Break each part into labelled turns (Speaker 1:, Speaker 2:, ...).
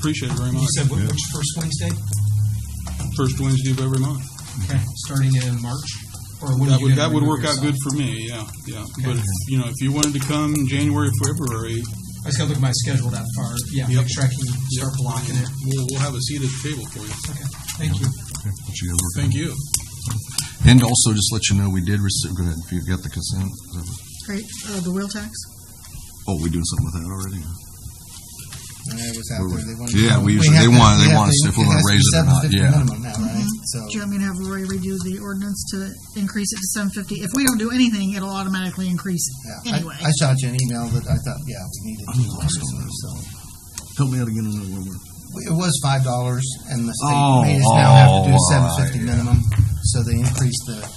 Speaker 1: Appreciate it very
Speaker 2: You
Speaker 1: much.
Speaker 2: said which, which first Wednesday?
Speaker 1: First Wednesday of every month.
Speaker 2: Okay, starting in March? Or when
Speaker 1: That
Speaker 2: you
Speaker 1: would,
Speaker 2: gonna
Speaker 1: that would work
Speaker 2: remove
Speaker 1: out good
Speaker 2: yourself?
Speaker 1: for me, yeah, yeah. But,
Speaker 2: Okay.
Speaker 1: if you know, if you wanted to come January, February,
Speaker 2: I just gotta look at my schedule that far. Yeah,
Speaker 1: Yep.
Speaker 2: make sure I can start blocking it.
Speaker 1: we'll, we'll have a seat at the table for you.
Speaker 2: Okay, thank you.
Speaker 3: What you guys working
Speaker 1: Thank you.
Speaker 3: on? And also, just let you know, we did receive, go ahead, if you got the consent. is that what-
Speaker 4: Great, uh, the wheel tax?
Speaker 3: Oh, we doing something with that already?
Speaker 5: I was out there. They wanted
Speaker 3: Yeah,
Speaker 5: to-
Speaker 3: we usually-
Speaker 5: have
Speaker 3: they
Speaker 5: to-
Speaker 3: want- they
Speaker 5: have
Speaker 3: want
Speaker 5: to-
Speaker 3: us if we're gonna
Speaker 5: has be
Speaker 3: raise it or not,
Speaker 5: 750
Speaker 3: yeah.
Speaker 5: Minimum now, right? So,
Speaker 4: Do you want me to have Rory redo the ordinance to increase it to seven fifty? If we don't do anything, it'll automatically increase
Speaker 5: yeah. I-
Speaker 4: anyway.
Speaker 5: I shot you an email that I thought, yeah, we needed to do this, so.
Speaker 3: Help me out again on that one word.
Speaker 5: It was five dollars and the
Speaker 3: Oh,
Speaker 5: state made us now have to
Speaker 3: oh,
Speaker 5: do
Speaker 3: all
Speaker 5: seven
Speaker 3: right,
Speaker 5: fifty
Speaker 3: yeah.
Speaker 5: minimum. So they increased the,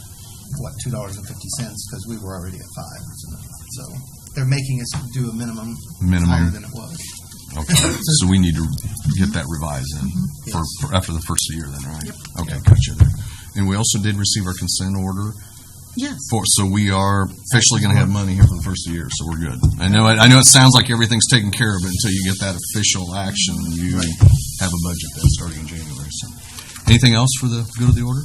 Speaker 5: what, two dollars and fifty cents because we were already at five. So they're making us do a minimum higher
Speaker 3: Minimum,
Speaker 5: than it was.
Speaker 3: okay. So we need to get that revised in for,
Speaker 5: Yes.
Speaker 3: for after the first year then, right?
Speaker 4: Yep.
Speaker 3: Okay, gotcha. there. And we also did receive our consent order
Speaker 4: Yes,
Speaker 3: for, so we are officially gonna have money here for the first year, so we're good. I know, it- I know it sounds like everything's taken care of, but until you get that official action, you have a budget that's starting in January, so. Anything else for the good of the order?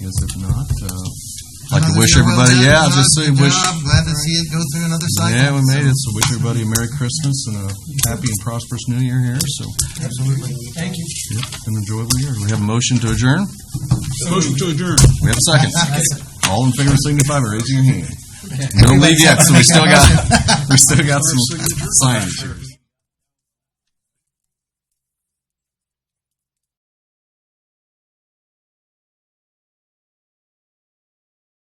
Speaker 3: Guess if not, uh, like to
Speaker 5: Another
Speaker 3: wish
Speaker 5: year well
Speaker 3: everybody,
Speaker 5: done,
Speaker 3: yeah,
Speaker 5: Rod.
Speaker 3: just say
Speaker 5: Good
Speaker 3: wish,
Speaker 5: job. Glad to see it go through another cycle.
Speaker 3: yeah, we made it, so wish everybody a Merry Christmas and a happy and prosperous New Year here, so,
Speaker 5: Absolutely.
Speaker 2: Thank you.
Speaker 3: an enjoyable year. We have a motion to adjourn?
Speaker 1: Motion to adjourn.
Speaker 3: We have a second. All in favor, signify by raising your hand.
Speaker 2: Okay.
Speaker 3: Don't leave yet, so we still got, we still got some signs.